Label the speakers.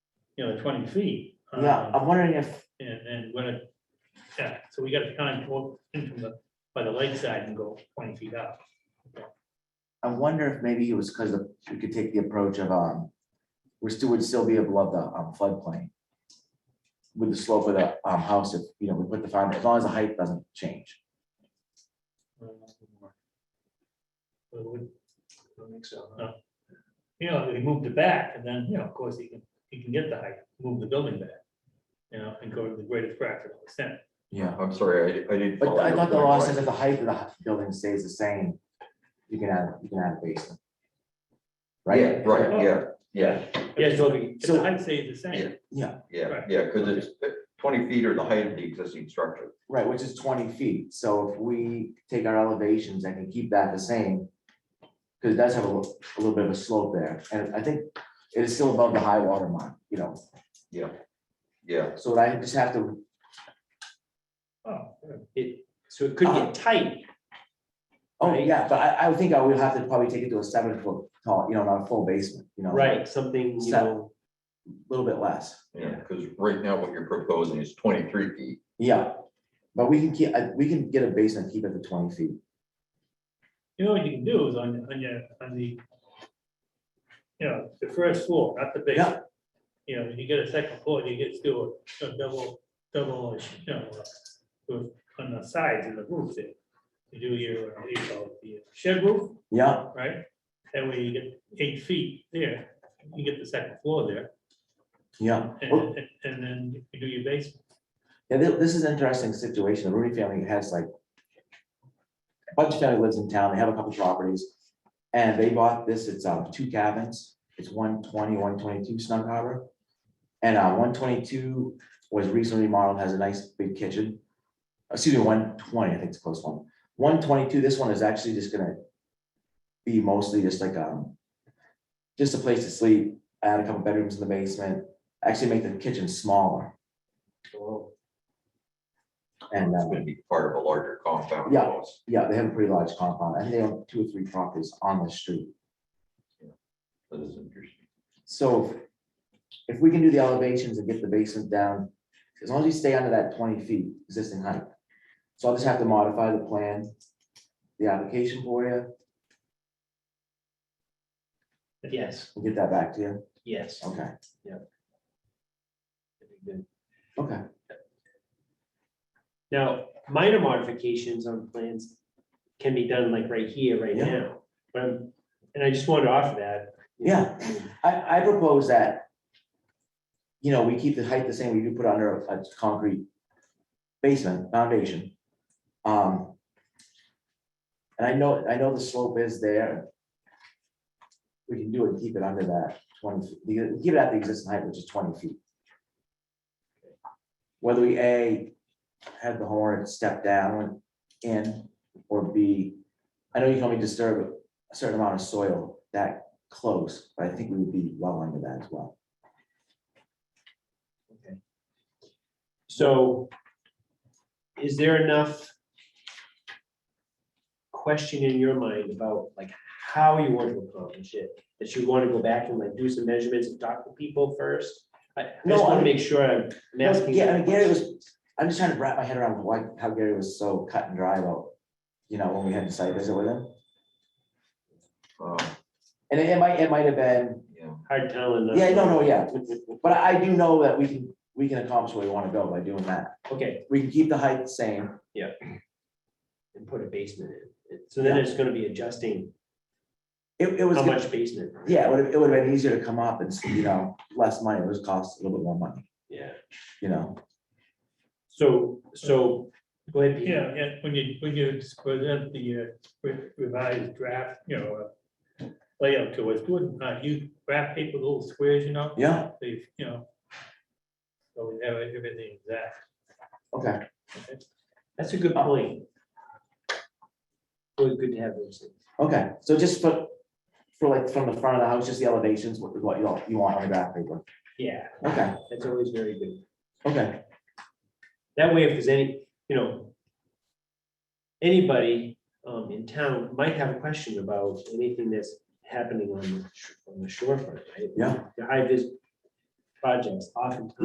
Speaker 1: you know, twenty feet.
Speaker 2: Yeah,
Speaker 1: um,
Speaker 2: I'm wondering if,
Speaker 1: And, and when it, yeah, so we gotta kind of walk in from the, by the lakeside and go twenty feet up.
Speaker 2: I wonder if maybe it was because we could take the approach of, um, we still would still be above the um, floodplain. With the slope of the, um, house, if, you know, we put the foundation, as long as the height doesn't change.
Speaker 1: But it would- No. You know, he moved it back and then, you know, of course, he can, he can get the height, move the building back. You know, and go to the greatest practical extent.
Speaker 2: Yeah.
Speaker 3: I'm sorry, Oh, I, I didn't.
Speaker 2: But
Speaker 3: follow
Speaker 2: I
Speaker 3: your
Speaker 2: thought the
Speaker 3: point,
Speaker 2: law
Speaker 3: Brian.
Speaker 2: says if the height of the hu- building stays the same, you can add, you can add a basement. Right?
Speaker 3: Yeah, right, yeah, yeah,
Speaker 1: Yeah, so if the
Speaker 2: So-
Speaker 1: height stays the same,
Speaker 3: yeah,
Speaker 1: Right.
Speaker 3: yeah, because it's uh, twenty feet or the height of the existing structure.
Speaker 2: Right, which is twenty feet, so if we take our elevations and can keep that the same. Cause it does have a little, a little bit of a slope there, and I think it is still above the high water mark, you know,
Speaker 3: Yeah,
Speaker 2: so I just have to,
Speaker 1: oh, Ah. yeah.
Speaker 4: It, so it could
Speaker 2: Uh,
Speaker 4: get tight.
Speaker 2: oh,
Speaker 4: Right.
Speaker 2: yeah, but I, I would think I would have to probably take it to a seven foot tall, you know, not a full basement, you know.
Speaker 4: Right, something, you
Speaker 2: So-
Speaker 4: know,
Speaker 2: a Little bit less,
Speaker 3: yeah, because right now what you're proposing is twenty-three feet.
Speaker 2: yeah, but we can keep, I- we can get a basement, keep it to twenty feet,
Speaker 1: You know, what you can do is on, on your, on the, you know, the first floor, not the basement. You know, you get a second floor, you get still a a double, double, you know, uh, on the sides and the roof there. You do your, uh, what do you call it, the shed roof,
Speaker 2: yeah,
Speaker 1: right? That way you get eight feet there, you get the second floor there,
Speaker 2: yeah.
Speaker 1: and,
Speaker 2: Well,
Speaker 1: and- and then you do your basement.
Speaker 2: Yeah, thi- this is an interesting situation. The Rooney family has like. A bunch of family lives in town. They have a couple properties. And they bought this. It's um two cabins. It's 120, 122 Snug Harbor. And uh one twenty-two was recently remodeled, has a nice big kitchen. Excuse me, one twenty, I think it's the close one. One twenty-two, this one is actually just gonna. Be mostly just like um. Just a place to sleep, add a couple bedrooms in the basement, actually make the kitchen smaller and
Speaker 3: It's
Speaker 2: uh.
Speaker 3: gonna be part of a larger compound.
Speaker 2: Yeah.
Speaker 3: almost.
Speaker 2: Yeah, they have a pretty large compound. I think they own two or three properties on the street.
Speaker 3: That is interesting.
Speaker 2: So if we can do the elevations and get the basement down, as long as you stay under that twenty feet existing height. So I'll just have to modify the plan, the application for you,
Speaker 4: yes,
Speaker 2: and get that back to you.
Speaker 4: yes.
Speaker 2: Okay,
Speaker 4: Good.
Speaker 2: okay.
Speaker 4: Now, minor modifications on plans can be done like right here, right
Speaker 2: Yeah.
Speaker 4: now, but, I'm- and I just wanted to offer that. you know,
Speaker 2: Yeah. I, I propose that, you know, we keep the height the same, we do put under a a concrete basement, foundation. Um, And I know, I know the slope is there. We can do it, and keep it under that twenty, feet. You keep it at the existing height, which is twenty feet. Whether we A, have the horn step down in, or B, I know you can only disturb a certain amount of soil that close, but I think we would be well under that as well.
Speaker 4: So is there enough question in your mind about like how you want to accomplish it? That you want to go back and like do some measurements and talk to people first? I I
Speaker 2: No,
Speaker 4: just want
Speaker 2: I-
Speaker 4: to make sure I'm I'm asking.
Speaker 2: Yeah, I mean, Gary was, I'm just trying to wrap my head around why, how Gary was so cut and dry about, you know, when we had the site visit with him.
Speaker 3: Um,
Speaker 2: And it it might, it might have been,
Speaker 3: Yeah,
Speaker 4: Hard telling. uh,
Speaker 2: yeah, no, no, yeah, but I I do know that we can, we can accomplish where we want to go by doing that.
Speaker 4: Okay,
Speaker 2: We can keep the height the same.
Speaker 4: and put a basement in. So then it's gonna be adjusting
Speaker 2: It, it was,
Speaker 4: how
Speaker 2: gonna-
Speaker 4: much basement. right?
Speaker 2: yeah, it would have, it would have been easier to come up and, s- you know, less money, it was cost a little bit more money,
Speaker 4: Yeah.
Speaker 2: you know?
Speaker 4: So, so, go ahead, Pete.
Speaker 1: Yeah, yeah, when you, when you present the uh, re- revised draft, you know, uh, layout to us, good, uh, you wrap paper little squares, you know?
Speaker 2: Yeah,
Speaker 1: So you you know. So we have everything exact.
Speaker 2: okay.
Speaker 4: That's a good point. Always good to have those things.
Speaker 2: Okay, so just for, for like from the front of the house, just the elevations, what, what you want, you want on the graph paper.
Speaker 4: Yeah,
Speaker 2: Okay,
Speaker 4: that's always very good.
Speaker 2: okay,
Speaker 4: That way, if there's any, you know, anybody um in town might have a question about anything that's happening on the sh- on the shorefront, right?
Speaker 2: yeah,
Speaker 4: The high vis, projects oftentimes